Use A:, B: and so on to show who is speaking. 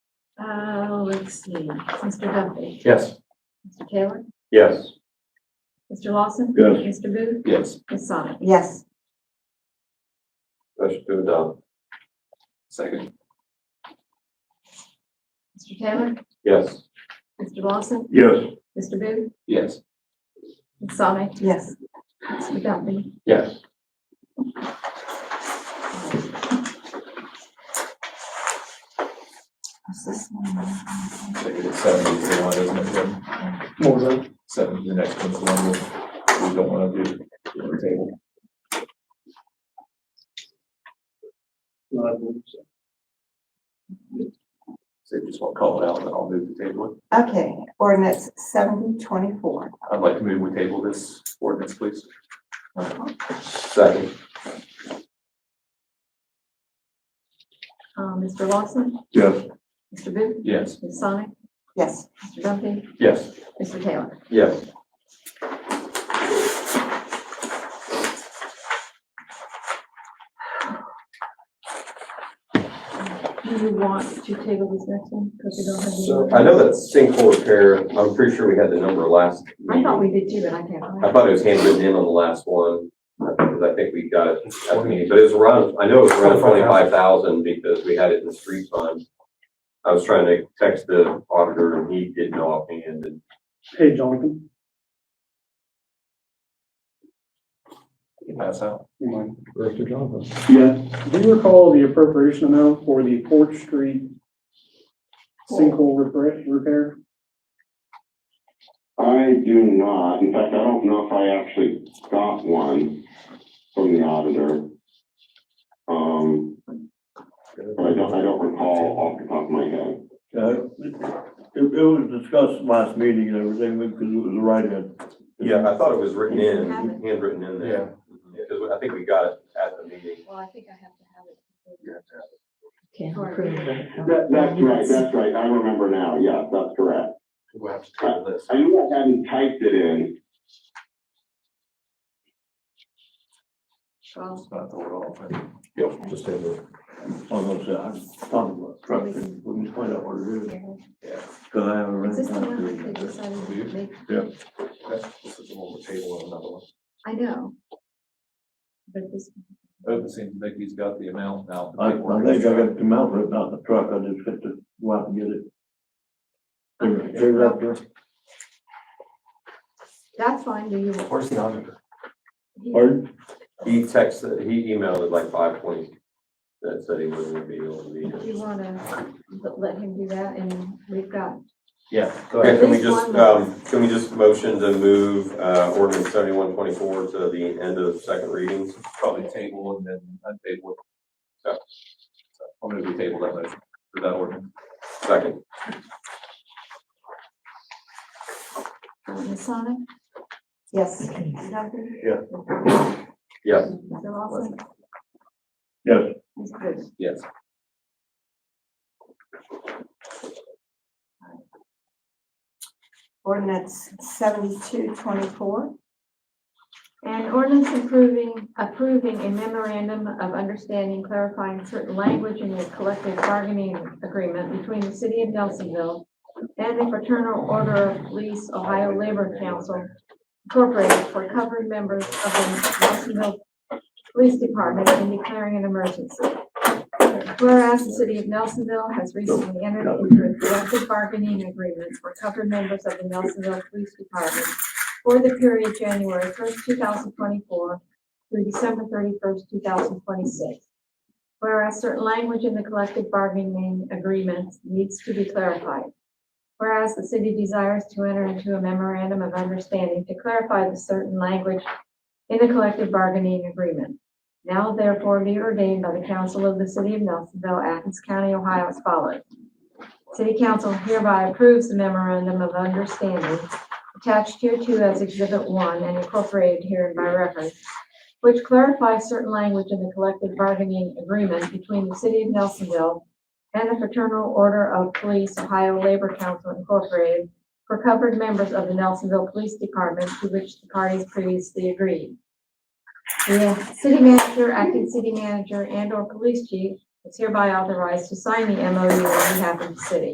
A: Uh, let's see, Mr. Duffy,
B: Yes.
A: Mr. Taylor,
B: Yes.
A: Mr. Lawson.
B: Yes.
A: Mr. Booth,
B: Yes.
A: Ms. Sonic.
C: Yes.
B: Motion to adopt. Second.
A: Mr. Taylor,
B: Yes.
A: Mr. Lawson,
B: Yes.
A: Mr. Booth,
B: Yes.
A: Ms. Sonic,
C: Yes.
A: Mr. Duffy.
B: Yes.
C: What's this one?
D: Maybe the seven is the one, isn't it, Jim?
B: More than.
D: Seven, the next one's the one we- we don't want to do on the table. So you just want to call it out, and I'll move the table. it.
C: Okay, ordinance seventy twenty-four.
D: I'd like to move we table this ordinance, please.
B: Second.
A: Uh, Mr. Lawson,
B: Yes.
A: Mr. Booth,
D: Yes.
A: Ms. Sonic,
C: Yes.
A: Mr. Duffy,
B: Yes.
A: Mr. Taylor.
B: Yes.
A: Do you want to table this next one? Because we don't have any
B: So
A: more.
B: I know that sinkhole repair, I'm pretty sure we had the number last
A: I thought
B: meeting.
A: we did too, but I can't. find
B: I
A: it.
B: thought it was handwritten in on the last one, because I think we got it at the meeting, but it was around, I know it was around twenty-five thousand because we had it in the street fund. I was trying to text the auditor and he didn't know offhand and
E: Hey, Jonathan,
D: Pass out.
E: you mind?
F: Director Johnson.
E: Yeah. Do you recall the appropriation amount for the Port Street sinkhole repair? repair?
G: I do not. In fact, I don't know if I actually got one from the auditor. Um, but I don't, I don't recall off the top of my head.
H: Yeah, Uh, it, it was discussed last meeting and everything, because it was a write-in.
B: Yeah, I thought it was written in,
A: Have it.
B: handwritten in there. Because I think we got it at the meeting.
A: Well, I think I have to have it.
C: Can't
A: approve
G: That, that's right, that's right. I remember now. Yeah, that's correct.
B: We'll have to
G: table
B: this.
G: I knew I hadn't typed it in.
A: Well,
D: It's not the word all, but
B: Yep, just in the.
H: Almost, I was talking about trust, and we can find out what it is, because I haven't
A: Is
H: read
A: this the
H: it.
A: one that they decided to make?
D: okay, this is the one we're tabling, another one.
A: I know. But this,
D: Doesn't seem Oh, like he's got the amount now.
B: Uh,
H: I, I think I got the mount ripped out the truck, I just had to go out and get it. Figure figure it out there.
A: that's fine, do you?
D: Where's the auditor?
H: Pardon?
B: He texted, he emailed at like five twenty. That said he wasn't gonna be able to be
A: Do you
B: here.
A: wanna let him do that and we've got,
D: Yeah. go
B: Okay,
D: ahead.
B: can we
A: At least
B: just,
A: one.
B: um, can we just motion to move, uh, ordinance seventy-one twenty-four to the end of second readings?
D: Probably table and then untable. So, so I'm gonna be table that motion for that ordinance.
B: Second,
A: uh, Ms. Sonic,
C: Yes.
A: Mr. Duffy?
H: Yeah.
B: yes.
A: Mr. Lawson?
H: Yes.
A: Ms. Booth?
B: Yes.
C: Ordinance seventy-two twenty-four.
A: An ordinance approving, approving a memorandum of understanding clarifying certain language in the collective bargaining agreement between the city of Nelsonville and the Fraternal Order of Police Ohio Labor Council Incorporated for covered members of the Nelsonville Police Department and declaring an emergency. Whereas the city of Nelsonville has recently entered into a collective bargaining agreement for covered members of the Nelsonville Police Department for the period January first, two thousand twenty-four through December thirty-first, two thousand twenty-six. Whereas certain language in the collective bargaining agreement needs to be clarified. Whereas the city desires to enter into a memorandum of understanding to clarify the certain language in the collective bargaining agreement. Now therefore be ordained by the council of the city of Nelsonville, Athens County, Ohio as follows. City council hereby approves the memorandum of understanding attached here to as Exhibit 1 and incorporated herein by reference, which clarifies certain language in the collective bargaining agreement between the City of Nelsonville and the Fraternal Order of Police Ohio Labor Council Incorporated for covered members of the Nelsonville Police Department to which the parties previously agreed. The city manager, acting city manager, and/or police chief is hereby authorized to sign the MOU on behalf of the city.